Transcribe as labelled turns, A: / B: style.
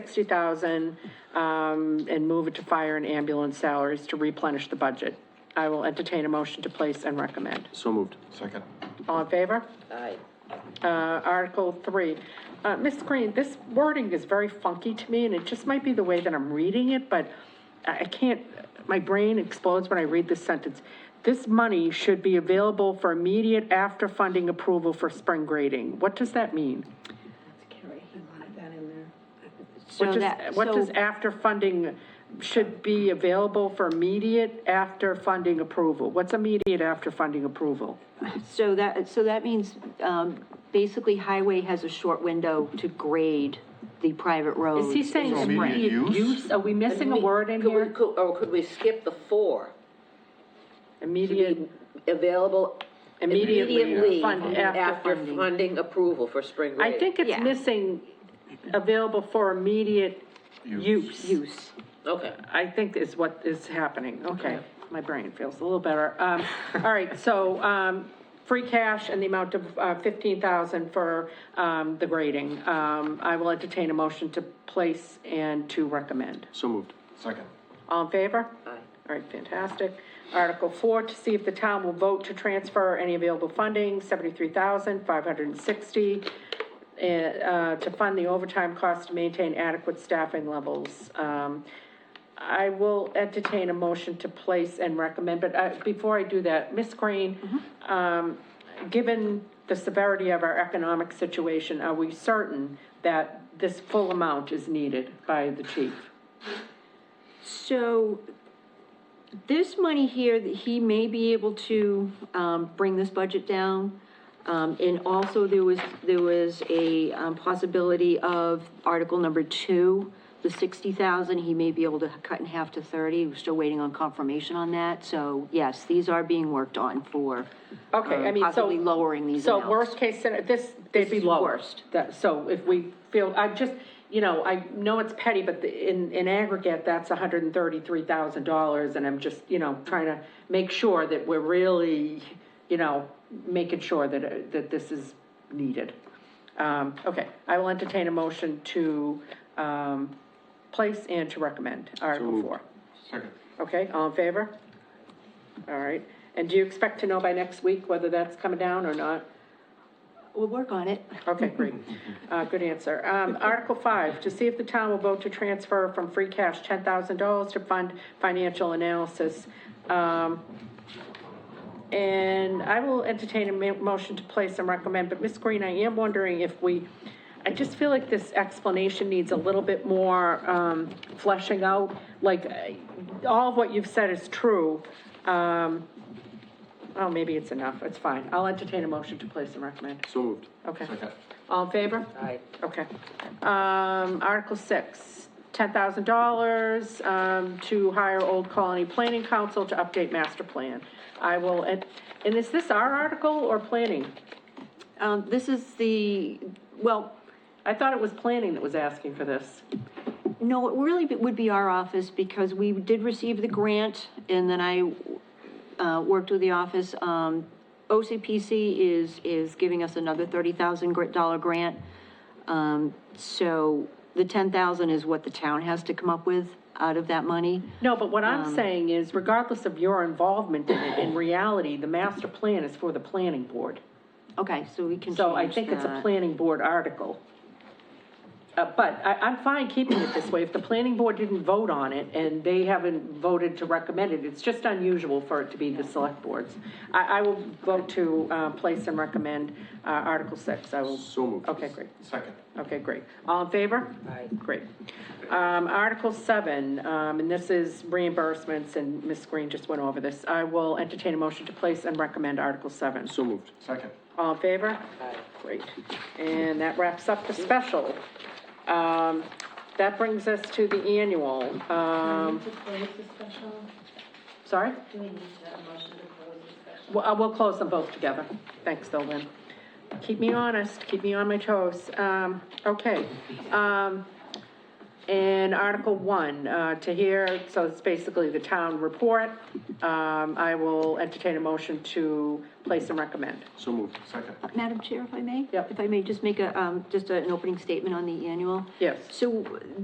A: 60,000 um, and move it to fire and ambulance salaries to replenish the budget. I will entertain a motion to place and recommend.
B: So moved.
C: Second.
A: All in favor?
D: Aye.
A: Uh, Article 3. Uh, Ms. Green, this wording is very funky to me, and it just might be the way that I'm reading it, but I I can't, my brain explodes when I read this sentence. This money should be available for immediate after-funding approval for spring grading. What does that mean?
D: Carrie, he wanted that in there.
A: What
E: So
A: does,
E: that,
A: what does
E: so,
A: after funding should be available for immediate after funding approval? What's immediate after funding approval?
E: so that, so that means, um, basically highway has a short window to grade the private roads.
A: Is he saying
C: So
A: immediate
C: immediate use?
A: use? Are we missing a word in
D: Could we-
A: here?
D: could- Or could we skip the four? To
A: Immediate,
D: be available
A: immediately
D: immediately
A: fund, after
D: after
A: funding.
D: funding approval for spring
A: I
D: grading.
A: think it's
E: Yeah.
A: missing available for immediate
C: Use.
A: use.
E: Use.
D: Okay.
A: I think is what is happening, okay. My brain feels a little better. Um, all right, so, um, free cash and the amount of, uh, fifteen thousand for, um, the grading. Um, I will entertain a motion to place and to recommend.
B: So moved.
C: Second.
A: All in favor?
D: Aye.
A: All right, fantastic. Article four, to see if the town will vote to transfer any available funding, seventy-three thousand, five hundred and sixty, uh, to fund the overtime costs to maintain adequate staffing levels. Um, I will entertain a motion to place and recommend, but, uh, before I do that, Ms. Green, um, given the severity of our economic situation, are we certain that this full amount is needed by the chief?
E: So this money here, that he may be able to, um, bring this budget down. Um, and also there was, there was a, um, possibility of article number two, the sixty thousand, he may be able to cut in half to thirty. We're still waiting on confirmation on that. So yes, these are being worked on for.
A: Okay, I
E: um,
A: mean, so.
E: Possibly lowering these
A: So
E: amounts.
A: worst case, scenario, this, they'd be
E: is
A: lower.
E: worst.
A: That, so if we feel, I just, you know, I know it's petty, but the- in, in aggregate, that's hundred and thirty-three thousand dollars, and I'm just, you know, trying to make sure that we're really, you know, making sure that, uh, that this is needed. Um, okay, I will entertain a motion to, um, place and to recommend Article
B: moved.
A: Four.
C: Second.
A: Okay, all in favor? All right, and do you expect to know by next week whether that's coming down or not?
E: We'll work on it.
A: Okay, great. Uh, good answer. Um, Article five, to see if the town will vote to transfer from free cash ten thousand dollars to fund financial analysis. Um, and I will entertain a ma- motion to place and recommend, but Ms. Green, I am wondering if we, I just feel like this explanation needs a little bit more, um, fleshing out. Like, uh, all of what you've said is true. Um, oh, maybe it's enough. It's fine. I'll entertain a motion to place and recommend.
B: So moved.
A: Okay.
C: Second.
A: All in favor?
D: Aye.
A: Okay. Um, Article six, ten thousand dollars, um, to hire Old Colony Planning Council to update master plan. I will, and, and is this our article or planning?
E: Um, this is the, well,
A: I thought it was planning that was asking for this.
E: No, it really be- would be our office because we did receive the grant and then I uh, worked with the office. Um, OCPC is, is giving us another $30,000 grant. Um, So the 10,000 is what the town has to come up with out of that money.
A: No, but what I'm saying is regardless of your involvement in it, in reality, the master plan is for the planning board.
E: Okay, so we can
A: So I
E: change
A: think it's a
E: that.
A: planning board article. Uh, but I, I'm fine keeping it this way. If the planning board didn't vote on it and they haven't voted to recommend it, it's just unusual for it to be the select boards. I, I will vote to, uh, place and recommend, uh, Article six. I will.
B: So moved.
A: Okay, great.
C: Second.
A: Okay, great. All in favor?
D: Aye.
A: Great. Um, Article seven, um, and this is reimbursements and Ms. Green just went over this. I will entertain a motion to place and recommend Article seven.
B: So moved.
C: Second.
A: All in favor?
D: Aye.
A: Great. And that wraps up the special. Um, that brings us to the annual. Um,
F: To close the special,
A: sorry?
F: do we need to have a motion to close the special?
A: We'll, uh, we'll close them both together. Thanks, though, Lynn. Keep me honest, keep me on my toes. Um, okay. Um, and Article One, uh, to hear, so it's basically the town report. Um, I will entertain a motion to place and recommend.
B: So moved.
C: Second.
E: Madam Chair, if I may?
A: Yep.
E: If I may, just make a, um, just a- an opening statement on the annual?
A: Yes.
E: So